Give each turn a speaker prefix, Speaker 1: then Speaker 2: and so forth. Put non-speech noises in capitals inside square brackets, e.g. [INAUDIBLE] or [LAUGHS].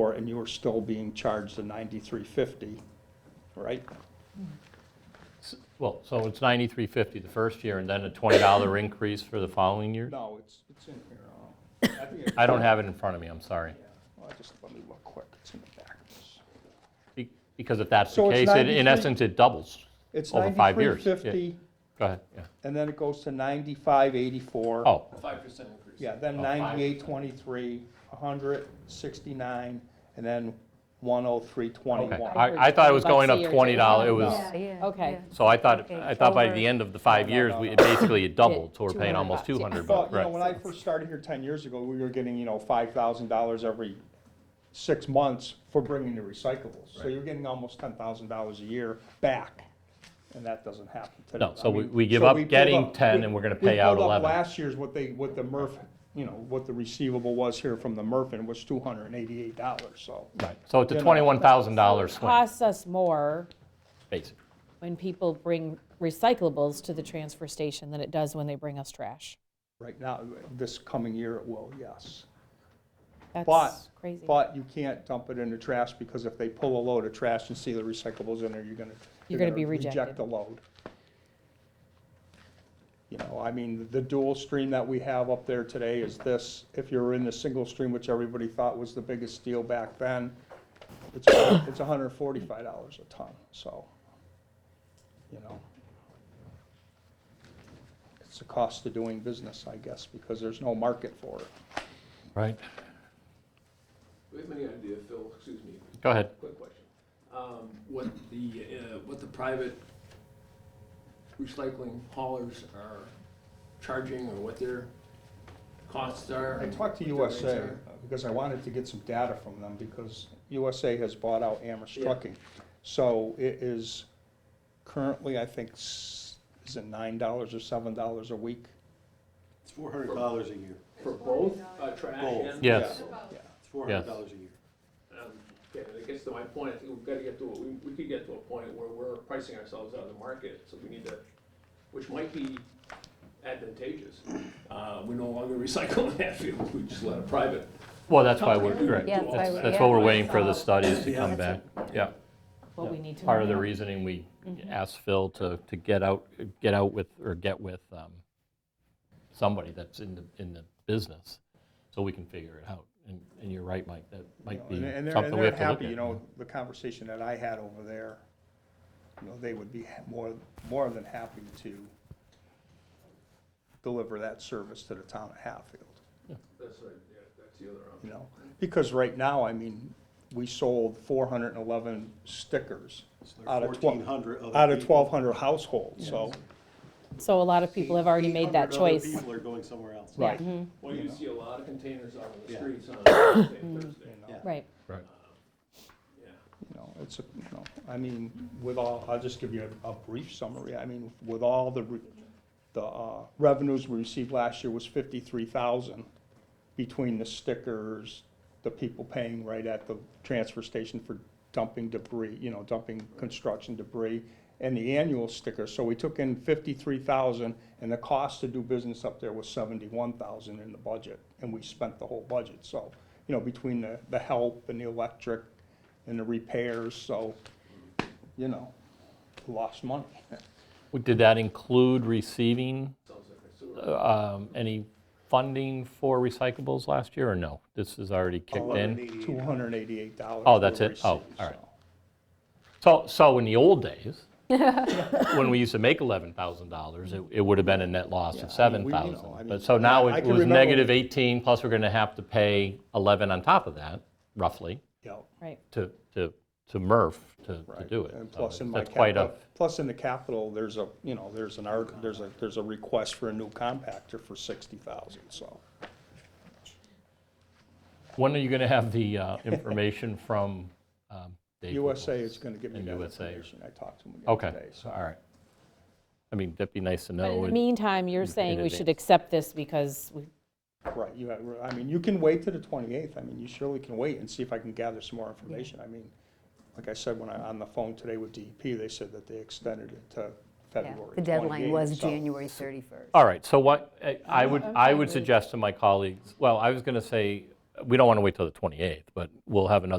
Speaker 1: for, and you were still being charged the ninety-three fifty, right?
Speaker 2: Well, so it's 9350 the first year, and then a $20 increase for the following year?
Speaker 1: No, it's, it's in here. uh, I think it-
Speaker 2: I don't have it in front of me, I'm sorry.
Speaker 1: Well, just let me look quick, it's in the back.
Speaker 2: Be- Because if that's
Speaker 1: So
Speaker 2: the
Speaker 1: it's
Speaker 2: case, it- in
Speaker 1: 93
Speaker 2: essence, it doubles.
Speaker 1: It's
Speaker 2: Over five
Speaker 1: ninety-three
Speaker 2: years, yeah.
Speaker 1: fifty,
Speaker 2: Go ahead, yeah.
Speaker 1: and then it goes to ninety-five eighty-four.
Speaker 2: Oh,
Speaker 3: Five percent increase.
Speaker 1: Yeah, then
Speaker 2: Oh, five.
Speaker 1: ninety-eight twenty-three, hundred sixty-nine, and then one oh three
Speaker 2: okay.
Speaker 1: twenty-one.
Speaker 2: I I thought it was
Speaker 4: Bucks a
Speaker 2: going up
Speaker 4: year, too.
Speaker 2: $20, it was,
Speaker 4: Yeah,
Speaker 5: Yeah.
Speaker 4: Okay.
Speaker 5: yeah.
Speaker 2: so I thought,
Speaker 5: Okay,
Speaker 2: I thought by the
Speaker 5: over-
Speaker 2: end of the five
Speaker 1: No, no,
Speaker 2: years,
Speaker 1: no,
Speaker 2: we
Speaker 1: no.
Speaker 2: it basically it doubled, so we're paying
Speaker 4: 200
Speaker 2: almost
Speaker 4: bucks, yeah.
Speaker 2: 200
Speaker 1: Well,
Speaker 2: bucks,
Speaker 1: you know,
Speaker 2: right?
Speaker 1: when I first started here ten years ago, we were getting, you know, five thousand dollars every six months for bringing the recyclables. So you're getting almost ten thousand dollars a year back, and that doesn't happen today.
Speaker 2: No, so
Speaker 1: I
Speaker 2: we-
Speaker 1: mean,
Speaker 2: we give
Speaker 1: so
Speaker 2: up
Speaker 1: pulled
Speaker 2: getting
Speaker 1: up-
Speaker 2: 10,
Speaker 1: we-
Speaker 2: and we're gonna
Speaker 1: we
Speaker 2: pay out
Speaker 1: pulled up
Speaker 2: 11.
Speaker 1: Last year's what they, what the MRF, you know, what the receivable was here from the MRF, was two hundred and eighty-eight dollars, so.
Speaker 2: Right. So it's a
Speaker 1: you know,
Speaker 2: $21,000
Speaker 4: It
Speaker 2: swing,
Speaker 4: Costs us more
Speaker 2: basically.
Speaker 4: when people bring recyclables to the transfer station than it does when they bring us trash.
Speaker 1: Right now, this coming year it will, yes. But,
Speaker 4: That's crazy.
Speaker 1: but you can't dump it in the trash, because if they pull a load of trash and see the recyclables in there, you're gonna.
Speaker 4: You're gonna be
Speaker 1: Reject
Speaker 4: rejected.
Speaker 1: the load. You know, I mean, the dual stream that we have up there today is this, if you're in the single stream, which everybody thought was the biggest deal back then, it's, it's hundred and forty-five dollars a ton, so, you know. It's the cost of doing business, I guess, because there's no market for it.
Speaker 2: Right.
Speaker 3: Do we have any idea, Phil, excuse me,
Speaker 2: Go ahead.
Speaker 3: quick question, um, what the, uh, what the private recycling haulers are charging or what their costs are?
Speaker 1: I talked to
Speaker 3: and what their rates
Speaker 1: USA
Speaker 3: are?
Speaker 1: because I wanted to get some data from them because USA has bought out Amherst Trucking. So it is currently, I think, s- is it nine dollars or seven dollars a week?
Speaker 6: It's four hundred dollars a year.
Speaker 3: For both, uh, trash
Speaker 6: Both.
Speaker 3: and.
Speaker 2: Yes.
Speaker 6: It's four hundred dollars a year.
Speaker 3: Um, Yeah, I guess to my point, I think we've gotta get to, a- we, we could get to a point where we're pricing ourselves out of the market, so we need to, which might be advantageous. Uh, we no longer recycle [LAUGHS] in Hatfield, we just let a private
Speaker 2: Well, that's why we're, right.
Speaker 5: Yeah, that's why
Speaker 2: That's
Speaker 5: we-
Speaker 2: that's
Speaker 5: yeah.
Speaker 2: what we're waiting for the studies to
Speaker 6: Yeah.
Speaker 2: come back. Yeah.
Speaker 4: What we need to.
Speaker 2: part of the
Speaker 4: know. Mm-hmm.
Speaker 2: reasoning we asked Phil to, to get out, get out with, or get with um, somebody that's in the, in the business, so we can figure it out. And, and you're right, Mike, that might be
Speaker 1: You know, and- and they're-
Speaker 2: something we have
Speaker 1: And
Speaker 2: to
Speaker 1: they're
Speaker 2: look
Speaker 1: happy, you
Speaker 2: at.
Speaker 1: know, the conversation that I had over there, you know, they would be ha- more, more than happy to deliver that service to the town of Hatfield.
Speaker 3: That's right, yeah, that's the other option.
Speaker 1: you know, because right now, I mean, we sold four hundred and eleven stickers
Speaker 6: It's
Speaker 1: out
Speaker 6: like
Speaker 1: of
Speaker 6: fourteen
Speaker 1: twelve,
Speaker 6: hundred other people.
Speaker 1: out of twelve hundred households, so.
Speaker 4: So a lot of people have already made that
Speaker 6: 800 other
Speaker 4: choice.
Speaker 6: People are going somewhere else.
Speaker 4: Right.
Speaker 3: Well,
Speaker 1: You
Speaker 3: you
Speaker 1: know.
Speaker 3: see a lot of containers out on the
Speaker 6: Yeah.
Speaker 3: streets on Thursday, Thursday,
Speaker 1: you know,
Speaker 4: Right.
Speaker 2: Right.
Speaker 3: yeah.
Speaker 1: You know, it's, a- you know, I mean, with all, I'll just give you a, a brief summary, I mean, with all the, re- the, uh, revenues we received last year was fifty-three thousand between the stickers, the people paying right at the transfer station for dumping debris, you know, dumping construction debris, and the annual sticker, so we took in fifty-three thousand, and the cost to do business up there was seventy-one thousand in the budget, and we spent the whole budget, so, you know, between the, the help and the electric and the repairs, so, you know, lost money.
Speaker 2: Well, Did that include receiving uh, um, any funding for recyclables last year, or no? This is already
Speaker 1: Oh,
Speaker 2: kicked in?
Speaker 1: Two hundred and eighty-eight dollars.
Speaker 2: Oh, that's it? Oh, all right. So, so in the
Speaker 1: [LAUGHS]
Speaker 2: old days, when we used to make $11,000, it, it would have been a net loss
Speaker 1: Yeah, I
Speaker 2: of
Speaker 1: mean, we- you know, I
Speaker 2: 7,000.
Speaker 1: mean,
Speaker 2: But so now
Speaker 1: I
Speaker 2: it
Speaker 1: can
Speaker 2: was
Speaker 1: remember-
Speaker 2: negative 18, plus we're going to have to pay 11 on top of that, roughly,
Speaker 1: Yep.
Speaker 4: Right.
Speaker 2: to, to, to MRF to, to
Speaker 1: Right.
Speaker 2: do it.
Speaker 1: And
Speaker 2: So
Speaker 1: plus in
Speaker 2: it's-
Speaker 1: my
Speaker 2: That's quite a,
Speaker 1: capital, plus in the capital, there's a, you know, there's an art, there's a, there's a request for a new compactor for sixty thousand, so.
Speaker 2: when are you going to have
Speaker 1: [LAUGHS]
Speaker 2: the uh, information from um, Dave?
Speaker 1: USA
Speaker 2: Nichols?
Speaker 1: is gonna give me
Speaker 2: And
Speaker 1: that
Speaker 2: USA.
Speaker 1: information, I talked to him again
Speaker 2: Okay,
Speaker 1: today, so.
Speaker 2: all right. I mean, that'd be nice to
Speaker 4: But in
Speaker 2: know.
Speaker 4: the
Speaker 2: It-
Speaker 4: meantime, you're
Speaker 2: in
Speaker 4: saying we should
Speaker 2: advance.
Speaker 4: accept this because we,
Speaker 1: Right, you have, I mean, you can wait to the twenty-eighth, I mean, you surely can wait and see if I can gather some more information, I mean, like I said, when I, on the phone today with DEP, they said that they extended it to
Speaker 5: Yeah.
Speaker 1: February
Speaker 5: The deadline was
Speaker 1: 28th, so-
Speaker 5: January 31st.
Speaker 2: All right, so what, I- I would,
Speaker 4: I'm
Speaker 2: I
Speaker 4: fine
Speaker 2: would
Speaker 4: with-
Speaker 2: suggest to my colleagues, well, I was going to say, uh, we don't want to wait till the 28th, but we'll have another